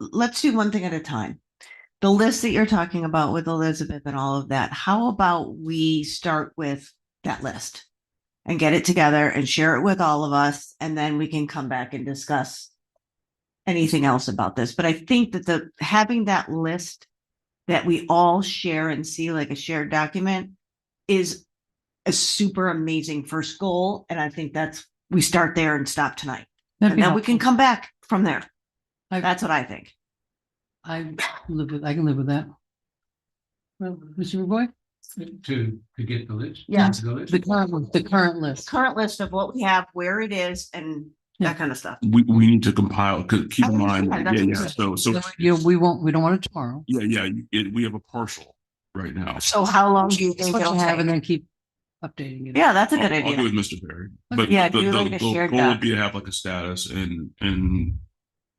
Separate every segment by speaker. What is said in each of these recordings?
Speaker 1: let's do one thing at a time. The list that you're talking about with Elizabeth and all of that, how about we start with that list? And get it together and share it with all of us, and then we can come back and discuss anything else about this. But I think that the, having that list that we all share and see like a shared document is a super amazing first goal. And I think that's, we start there and stop tonight.
Speaker 2: That'd
Speaker 1: And
Speaker 2: be
Speaker 1: then we can
Speaker 2: helpful.
Speaker 1: come back from there.
Speaker 2: I-
Speaker 1: That's what I think.
Speaker 2: I live with, I can live with that. Well, Mr. Boy,
Speaker 3: To, to get the list?
Speaker 1: Yeah.
Speaker 3: The list?
Speaker 2: the current, the current list.
Speaker 1: Current list of what we have, where it is and
Speaker 2: Yeah.
Speaker 1: that kind of stuff.
Speaker 4: We, we need to compile, because keep in
Speaker 1: Oh,
Speaker 4: mind,
Speaker 1: yeah,
Speaker 4: yeah,
Speaker 1: that's
Speaker 4: yeah,
Speaker 1: good.
Speaker 4: so, so,
Speaker 2: So, You know, we won't, we don't want it tomorrow.
Speaker 4: yeah, yeah, you- it, we have a partial right now.
Speaker 1: So how long do you
Speaker 2: It's
Speaker 1: think
Speaker 2: what
Speaker 1: it'll
Speaker 2: you have and
Speaker 1: take?
Speaker 2: then keep updating it.
Speaker 1: Yeah, that's a
Speaker 4: I'll
Speaker 1: good
Speaker 4: I'll do
Speaker 1: idea.
Speaker 4: with Mr. Perry, but
Speaker 1: Yeah,
Speaker 4: the,
Speaker 1: do like
Speaker 4: the
Speaker 1: a
Speaker 4: the
Speaker 1: shared
Speaker 4: goal
Speaker 1: doc.
Speaker 4: would be to have like a status and, and.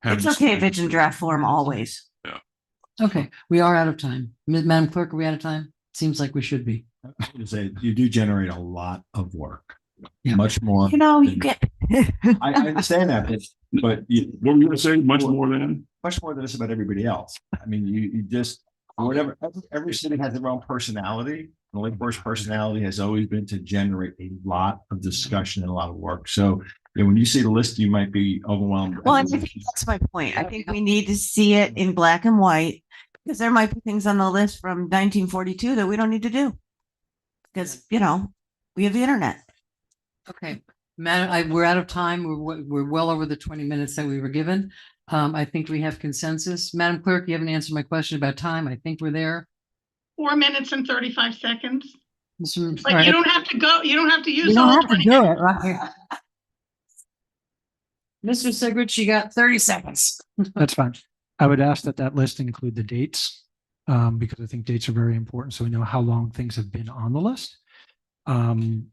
Speaker 4: have
Speaker 1: It's
Speaker 4: this-
Speaker 1: okay if it's in draft form always.
Speaker 2: Okay, we are out of time. Ma- Madam Clerk, are we out of time? Seems like we should be.
Speaker 5: I would say you do generate a lot of work,
Speaker 2: Yeah.
Speaker 5: much more.
Speaker 1: You know, you get.
Speaker 5: I, I understand that, but- but you,
Speaker 4: What were you gonna say? Much more than?
Speaker 5: much more than just about everybody else. I mean, you, you just, whatever, every- every city has their own personality. The Lakeport's personality has always been to generate a lot of discussion and a lot of work. So you know, when you see the list, you might be overwhelmed.
Speaker 1: Well, and I think that's my point. I think we need to see it in black and white because there might be things on the list from nineteen forty-two that we don't need to do. Because, you know, we have the internet.
Speaker 2: Okay, Madam, I, we're out of time. We're, we- we're well over the twenty minutes that we were given. Um, I think we have consensus. Madam Clerk, you haven't answered my question about time. I think we're there.
Speaker 6: Four minutes and thirty-five seconds.
Speaker 2: Mr. all
Speaker 6: Like, you
Speaker 2: right.
Speaker 6: don't have to go, you don't have to
Speaker 2: You
Speaker 6: use
Speaker 2: don't
Speaker 6: all
Speaker 2: have to
Speaker 6: twenty.
Speaker 2: do it right here. Mr. Sigrid, you got thirty seconds.
Speaker 7: That's fine. I would ask that that list include the dates, um, because I think dates are very important. So we know how long things have been on the list. Um,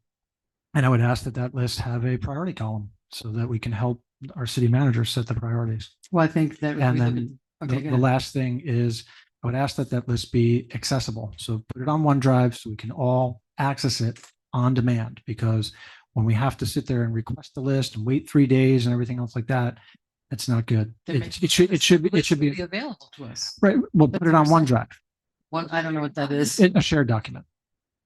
Speaker 7: and I would ask that that list have a priority column so that we can help our city managers set the priorities.
Speaker 2: Well, I think that.
Speaker 7: And
Speaker 2: we
Speaker 7: then
Speaker 2: did-
Speaker 7: The,
Speaker 2: Okay, go
Speaker 7: the
Speaker 2: ahead.
Speaker 7: last thing is, I would ask that that list be accessible. So put it on OneDrive so we can all access it on demand. Because when we have to sit there and request the list and wait three days and everything else like that, it's not good.
Speaker 2: That
Speaker 7: It,
Speaker 2: makes
Speaker 7: it should, it should, be it should be,
Speaker 2: Available to us.
Speaker 7: right, well,
Speaker 2: That's
Speaker 7: put it on
Speaker 2: what I'm
Speaker 7: OneDrive,
Speaker 2: One, I don't know what that is.
Speaker 7: in a shared document.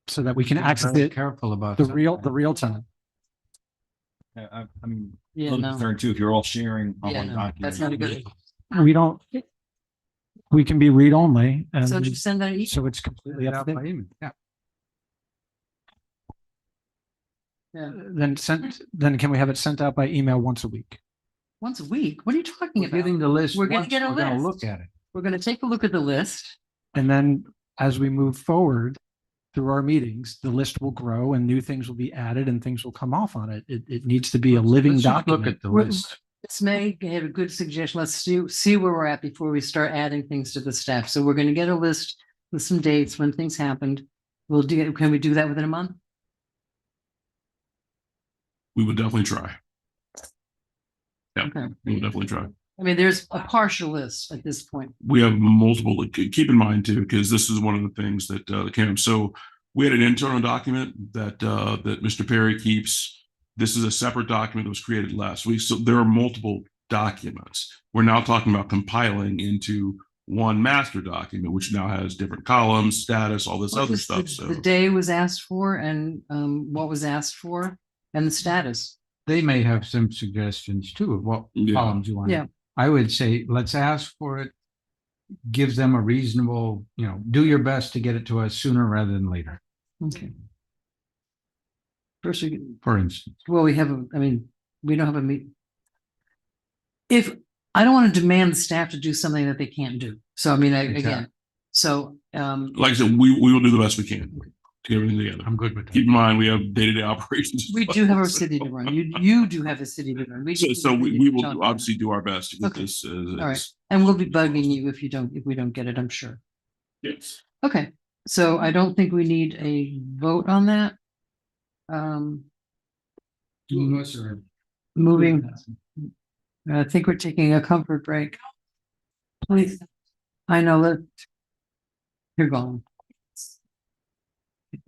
Speaker 7: So that we can access it,
Speaker 3: Careful about.
Speaker 7: the real, the real time.
Speaker 5: I, I'm a
Speaker 2: Yeah,
Speaker 5: little
Speaker 2: no.
Speaker 5: concerned too, if you're all sharing on
Speaker 2: Yeah,
Speaker 5: one
Speaker 2: no,
Speaker 5: document.
Speaker 2: that's not a good.
Speaker 7: We don't, we can be read only and
Speaker 2: So just send that e- each,
Speaker 7: so it's completely up to date.
Speaker 2: yeah,
Speaker 7: Then sent, then can we have it sent out by email once a week?
Speaker 2: once a week. What are you talking
Speaker 3: We're
Speaker 2: about?
Speaker 3: getting the list.
Speaker 2: We're gonna
Speaker 3: once
Speaker 2: get a
Speaker 3: we're gonna
Speaker 2: list.
Speaker 3: Look at it.
Speaker 2: We're gonna take a look at the list.
Speaker 7: And then as we move forward through our meetings, the list will grow and new things will be added and things will come off on it. It, it needs to be a living
Speaker 3: Let's just look
Speaker 7: document.
Speaker 3: at the
Speaker 2: We're-
Speaker 3: list.
Speaker 2: This May had a good suggestion. Let's see, see where we're at before we start adding things to the staff. So we're gonna get a list with some dates when things happened. We'll do, can we do that within a month?
Speaker 4: We would definitely try. Yeah,
Speaker 2: Okay.
Speaker 4: we would definitely try.
Speaker 2: I mean, there's a partial list at this point.
Speaker 4: we have multiple, keep in mind too, because this is one of the things that uh, came. So we had an internal document that uh, that Mr. Perry keeps. This is a separate document that was created last week. So there are multiple documents. We're now talking about compiling into one master document, which now has different columns, status, all this
Speaker 2: What
Speaker 4: other
Speaker 2: was the-
Speaker 4: stuff. So
Speaker 2: The day was asked for and um what was asked for and the status.
Speaker 3: They may have some suggestions too of what
Speaker 4: Yeah.
Speaker 3: columns you want.
Speaker 2: Yeah.
Speaker 3: I would say, let's ask for it. Give them a reasonable, you know, do your best to get it to us sooner rather than later,
Speaker 2: Okay. First, we-
Speaker 3: for instance.
Speaker 2: well, we have, a- I mean, we don't have a meet. If, I don't want to demand the staff to do something that they can't do. So I mean, I- again,
Speaker 3: Exactly.
Speaker 2: so um,
Speaker 4: like I said, we we will do the best we can to get everything together.
Speaker 3: I'm good with
Speaker 4: Keep
Speaker 3: that.
Speaker 4: in mind, we have day to day operations. as
Speaker 2: we
Speaker 4: well.
Speaker 2: do have a
Speaker 4: So-
Speaker 2: city to run. You, you do have a city to run.
Speaker 4: So,
Speaker 2: just-
Speaker 4: so we, we will
Speaker 2: Talk
Speaker 4: do-
Speaker 2: about it.
Speaker 4: obviously do our best to get
Speaker 2: Okay.
Speaker 4: this.
Speaker 2: All right. And we'll be bugging you if you don't, if we don't get it, I'm sure.
Speaker 4: Yes.
Speaker 2: Okay, so I don't think we need a vote on that. Um,
Speaker 3: Two of us are-
Speaker 2: moving, I think we're taking a comfort break. Please, I know that. You're gone.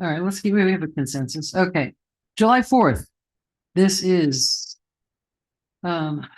Speaker 2: All right, let's give, we have a consensus. Okay, July fourth. This is. Um,